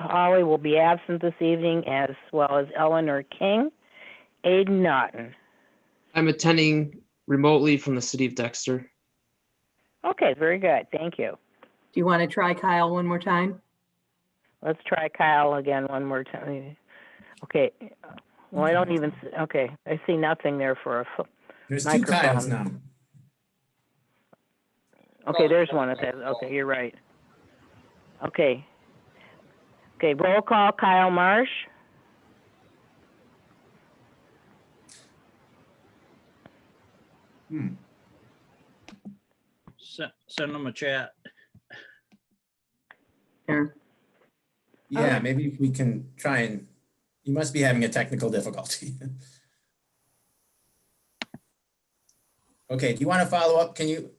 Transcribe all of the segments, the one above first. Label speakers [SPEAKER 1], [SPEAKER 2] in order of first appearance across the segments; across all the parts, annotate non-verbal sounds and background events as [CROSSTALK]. [SPEAKER 1] Holly will be absent this evening, as well as Eleanor King. Aiden Naughton.
[SPEAKER 2] I'm attending remotely from the city of Dexter.
[SPEAKER 1] Okay, very good. Thank you.
[SPEAKER 3] Do you want to try Kyle one more time?
[SPEAKER 1] Let's try Kyle again one more time. Okay, well, I don't even, s- okay, I see nothing there for a, pho-
[SPEAKER 4] There's two Kyles now.
[SPEAKER 1] okay, there's one of those. Okay, you're right. Okay. Okay, roll call Kyle Marsh.
[SPEAKER 5] Se- Send them a chat.
[SPEAKER 3] Sure.
[SPEAKER 4] Yeah, maybe we can try and, you must be having a technical difficulty. [LAUGHS] Okay, do you want to follow up? Can you,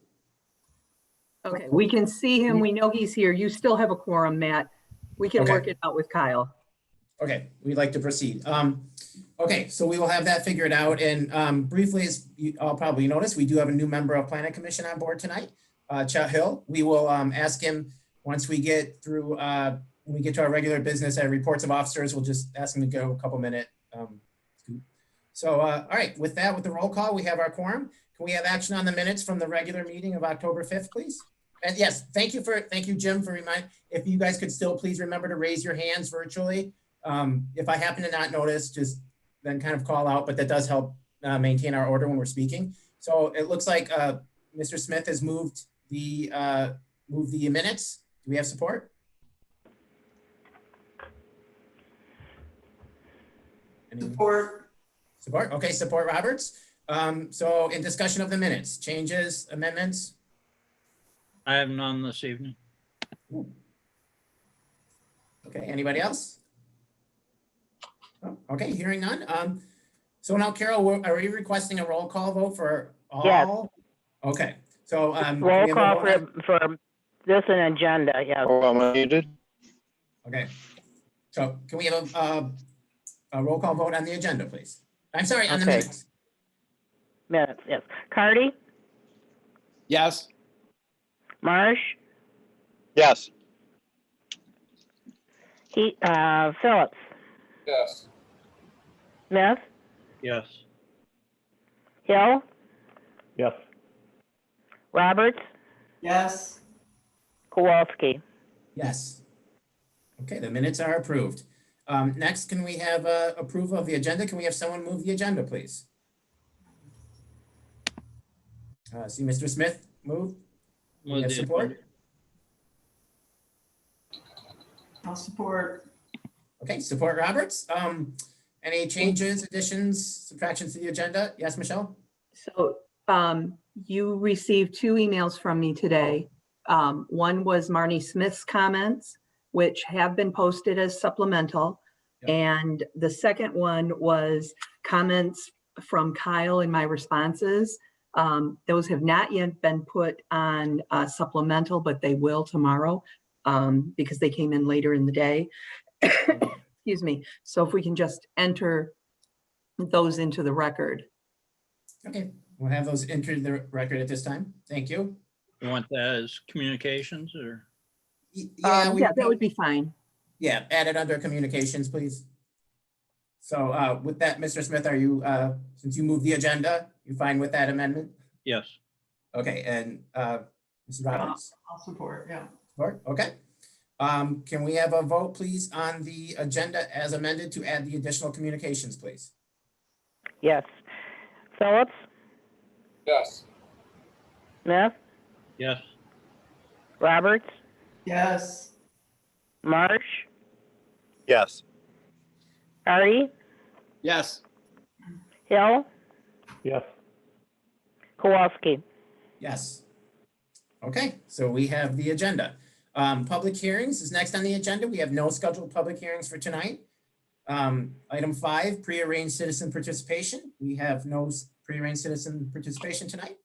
[SPEAKER 3] Okay, we can see him. We know he's here. You still have a quorum, Matt. We can
[SPEAKER 4] Okay.
[SPEAKER 3] work it out with Kyle.
[SPEAKER 4] Okay, we'd like to proceed. Um, okay, so we will have that figured out and, um, briefly, as you all probably noticed, we do have a new member of Planet Commission on board tonight. Uh, Chet Hill, we will, um, ask him, once we get through, uh, when we get to our regular business and reports of officers, we'll just ask him to go a couple minute, um, scoop. So, uh, all right, with that, with the roll call, we have our quorum. Can we have action on the minutes from the regular meeting of October fifth, please? And yes, thank you for, thank you, Jim, for remind, if you guys could still please remember to raise your hands virtually. Um, if I happen to not notice, just then kind of call out, but that does help uh, maintain our order when we're speaking. So it looks like uh, Mr. Smith has moved the, uh, moved the minutes. Do we have support? Anyone?
[SPEAKER 6] Support,
[SPEAKER 4] Support, okay, support Roberts. Um, So in discussion of the minutes, changes, amendments,
[SPEAKER 5] I have none this evening.
[SPEAKER 4] Okay, anybody else? Oh, Okay, hearing none. Um, so now Carol, we're- are we requesting a roll call vote for
[SPEAKER 1] Yes.
[SPEAKER 4] all? Okay, so, um. can we
[SPEAKER 1] Roll
[SPEAKER 4] have a
[SPEAKER 1] call
[SPEAKER 4] vote
[SPEAKER 1] for,
[SPEAKER 4] on-
[SPEAKER 1] for this an agenda, yes.
[SPEAKER 7] Oh, I'm unmuted.
[SPEAKER 4] Okay, so can we have a, uh, a roll call vote on the agenda, please? I'm sorry, on the
[SPEAKER 1] Okay.
[SPEAKER 4] minutes.
[SPEAKER 1] Minutes, yes. Cardy,
[SPEAKER 7] Yes.
[SPEAKER 1] Marsh,
[SPEAKER 7] Yes.
[SPEAKER 1] he, uh, Phillips,
[SPEAKER 7] Yes.
[SPEAKER 1] Smith,
[SPEAKER 5] Yes.
[SPEAKER 1] Hill,
[SPEAKER 8] Yes.
[SPEAKER 1] Roberts,
[SPEAKER 6] yes,
[SPEAKER 1] Kowalski.
[SPEAKER 4] Yes. Okay, the minutes are approved. Um, next, can we have, uh, approval of the agenda? Can we have someone move the agenda, please? Uh, see Mr. Smith move?
[SPEAKER 5] Move
[SPEAKER 4] Yes,
[SPEAKER 5] the-
[SPEAKER 4] support.
[SPEAKER 6] I'll support,
[SPEAKER 4] Okay, support Roberts. Um, any changes, additions, subtractions to the agenda? Yes, Michelle?
[SPEAKER 3] So um, you received two emails from me today. Um, One was Marnie Smith's comments, which have been posted as supplemental.
[SPEAKER 4] Yep.
[SPEAKER 3] And the second one was comments from Kyle and my responses. Um, Those have not yet been put on uh, supplemental, but they will tomorrow um, because they came in later in the day. [COUGHS] Excuse me. So if we can just enter those into the record.
[SPEAKER 4] Okay, we'll have those entered the record at this time. Thank you.
[SPEAKER 5] You want that as communications or?
[SPEAKER 4] Y-
[SPEAKER 3] Um,
[SPEAKER 4] we-
[SPEAKER 3] Yeah, that would be fine.
[SPEAKER 4] Yeah, add it under communications, please. So, uh, with that, Mr. Smith, are you, uh, since you moved the agenda, you fine with that amendment?
[SPEAKER 5] Yes.
[SPEAKER 4] Okay, and, uh, Mrs. Roberts?
[SPEAKER 6] I'll support, yeah.
[SPEAKER 4] Support, okay. Um, can we have a vote, please, on the agenda as amended to add the additional communications, please?
[SPEAKER 1] Yes. Phillips,
[SPEAKER 7] Yes.
[SPEAKER 1] Smith,
[SPEAKER 5] Yes.
[SPEAKER 1] Roberts,
[SPEAKER 6] Yes,
[SPEAKER 1] Marsh,
[SPEAKER 7] Yes.
[SPEAKER 1] Artie,
[SPEAKER 7] Yes.
[SPEAKER 1] Hill,
[SPEAKER 8] Yes.
[SPEAKER 1] Kowalski.
[SPEAKER 4] Yes. Okay, so we have the agenda. Um, public hearings is next on the agenda. We have no scheduled public hearings for tonight. Um, item five, prearranged citizen participation. We have no s- prearranged citizen participation tonight.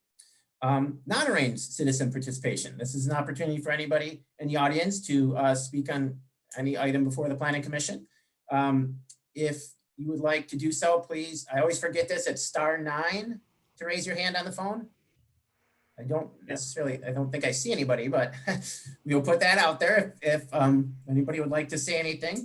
[SPEAKER 4] Um, non-arranged citizen participation. This is an opportunity for anybody in the audience to, uh, speak on any item before the planning commission. Um, if you would like to do so, please, I always forget this, it's star nine to raise your hand on the phone. I don't necessarily, I don't [LAUGHS] think I see anybody, but we'll put that out there if, if, um, anybody would like to say anything.